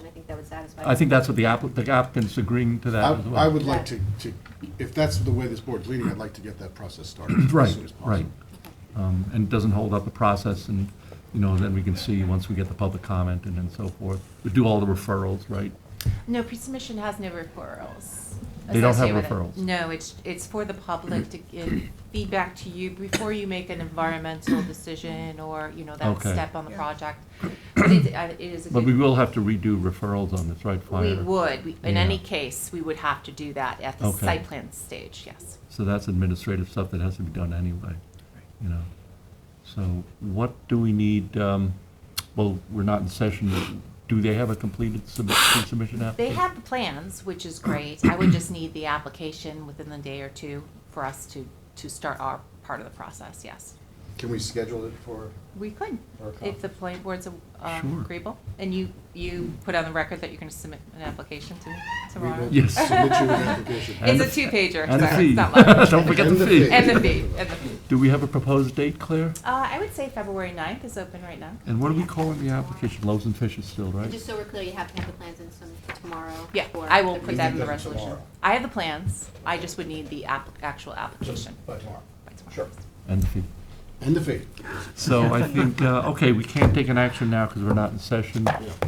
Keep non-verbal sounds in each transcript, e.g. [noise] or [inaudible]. I think that would satisfy. I think that's what the appli- the applicant's agreeing to that as well. I I would like to, to, if that's the way this board's leading, I'd like to get that [clears throat] process started as Right, soon as possible. right. Um, And it doesn't hold up the process, and, you know, then we can see, once we get the public comment and then so forth, we do all the referrals, right? No, pre-submission has no referrals. They don't have associated with it. referrals. No, it's, it's for the public to give feedback to you before you make an environmental decision or, you know, that Okay. step on the project. But it, uh, it is a But we good, will have to redo referrals on this, right, we Fire? would, We- in any Yeah. case, we would have to do that at the Okay. site plan stage, yes. So that's administrative stuff that has to be done anyway, you know? So what do we need, um, well, we're not in session, do they have a completed sub- submission They application? have the plans, which is great. I would just need the application within the day or two for us to, to start our part of the process, yes. Can we schedule it for, We could, Or a if the planning board's Sure. um, agreeable. And you, you put on the record that you're going to submit an application to we tomorrow? will Yes. submit you an application. [laughs] And It's a the- two-pager, and the so fee. it's not [laughs] much. Don't forget the And the fee. fee. And the fee, and the fee. Do we have a proposed date, Claire? Uh, I would say February 9th is open right now. And what are we calling the application? Loaves and fishes still, right? Just so we're clear, you have to have the plans in some tomorrow. Yeah, for I will the put We pre- that need in the them resolution. tomorrow. I have the plans, I just would need the app, actual application By tomorrow. by tomorrow. Sure. And the fee. And the fee. So I think, uh, okay, we can't take an action now because we're not in session,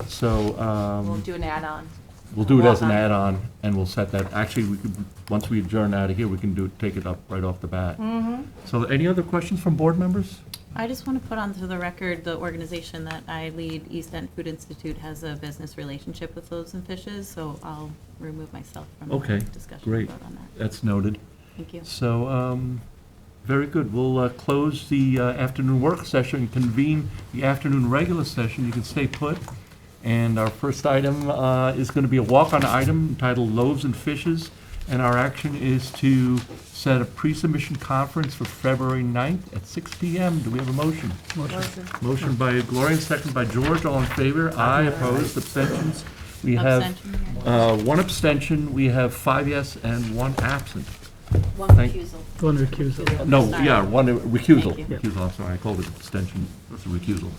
so um, We'll do an add-on. we'll do it as an Walk-on. add-on, and we'll set that, actually, we could, once we adjourn out of here, we can do, take it up right off the bat. So any other questions from board members? I just want to put onto the record, the organization that I lead, East End Food Institute, has a business relationship with Loaves and Fishes, so I'll remove myself from the Okay, discussion great. vote on that. That's noted. Thank you. So, um, very good. We'll uh, close the uh, afternoon work session, convene the afternoon regular session. You can stay put. And our first item uh, is going to be a walk-on item entitled Loaves and Fishes. And our action is to set a pre-submission conference for February 9th at 6 PM. Do we have a motion? Motion. Motion by Gloria, second by George. All in favor? Aye, opposed, abstentions? We have Abstention here. uh, one abstention, we have five yes and one absent. One Thank- recusal. One recusal. No, Sorry. yeah, one recusal. Thank you. Recusal, I'm sorry, I called it abstention, it's a recusal.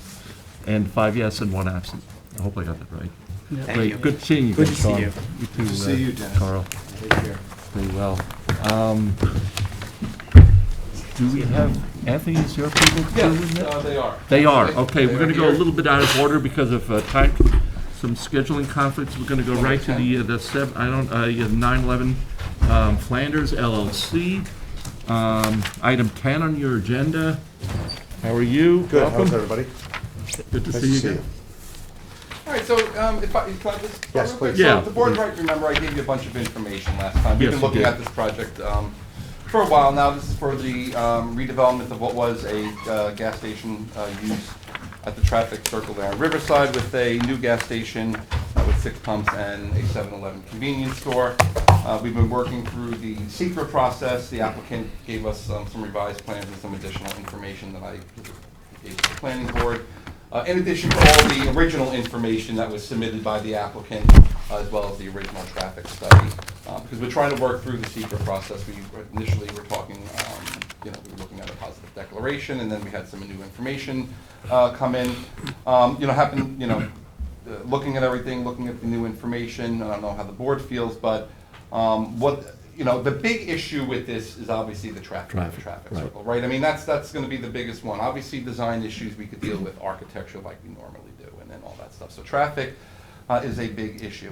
And five yes and one absent. I hope I got that right. Great, Good seeing you. Good guys, to see Carl. you. too, to see uh, you, Dennis. Carl, Take care. very well. Um, Do we have, Anthony, is your people doing that? they are. They are, okay, we're gonna go a little bit out of order because of uh, time, some scheduling conflicts. We're gonna go right to the, uh, the sev, I don't, uh, yeah, 9/11 um, Flanders LLC. Um, Item 10 on your agenda. How are you? Good, how's Welcome. everybody? Good to Nice see you again. All right, so um, if I, can I just? go Yes, real quick? please. Yeah. So if the board right, remember I gave you a bunch of information last time. Yes, We've been you looking did. at this project um, for a while now. This is for the um, redevelopment of what was a uh, gas station uh, used at the traffic circle there on Riverside with a new gas station uh, with six pumps and a 7-Eleven convenience store. Uh, We've been working through the secret process. The applicant gave us um, some revised plans and some additional information that I gave to the planning board. Uh, In addition to all the original information that was submitted by the applicant, uh, as well as the original traffic study, uh, because we're trying to work through the secret process. We were- initially were talking, um, you know, we were looking at a positive declaration, and then we had some new information uh, come in. Um, You know, happen, you know, uh, looking at everything, looking at the new information, I don't know how the board feels, but um, what, you know, the big issue with this is obviously the traffic, the Traffic, traffic right. circle people, right? I mean, that's, that's gonna be the biggest one. Obviously, design issues, we could deal with architecture like we normally do, and then all that stuff. So traffic uh, is a big issue.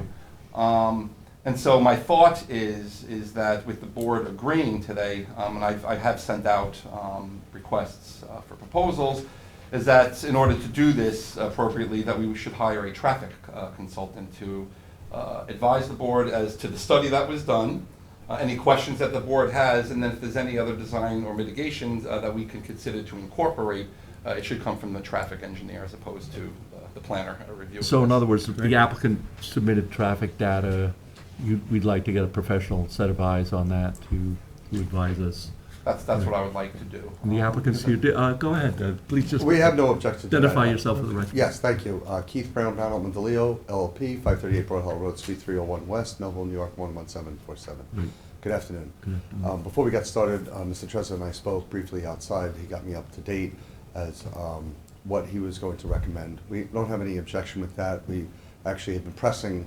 Um, And so my thought is, is that with the board agreeing today, um, and I've, I have sent out um, requests uh, for proposals, is that in order to do this appropriately, that we should hire a traffic uh, consultant to uh, advise the board as to the study that was done, uh, any questions that the board has, and then if there's any other design or mitigations uh, that we can consider to incorporate, uh, it should come from the traffic engineer as opposed to uh, the planner uh, review. of So in this. other words, the applicant submitted traffic data. You, we'd like to get a professional set of eyes on that to, to advise us. That's, that's what I would like to do. And the applicant's here, Di- uh, go ahead, uh, please just. We have no objection to that. Identify yourself for the record. Yes, thank you. Uh, Keith Brown, Donald Mandelio, LLP, 538 Broad Hall Road, Suite 301 West, Melville, New York, 11747. Good afternoon. Um, Before we got started, uh, Mr. Trezor and I spoke briefly outside. He got me up to date as um, what he was going to recommend. We don't have any objection with that. We actually had been pressing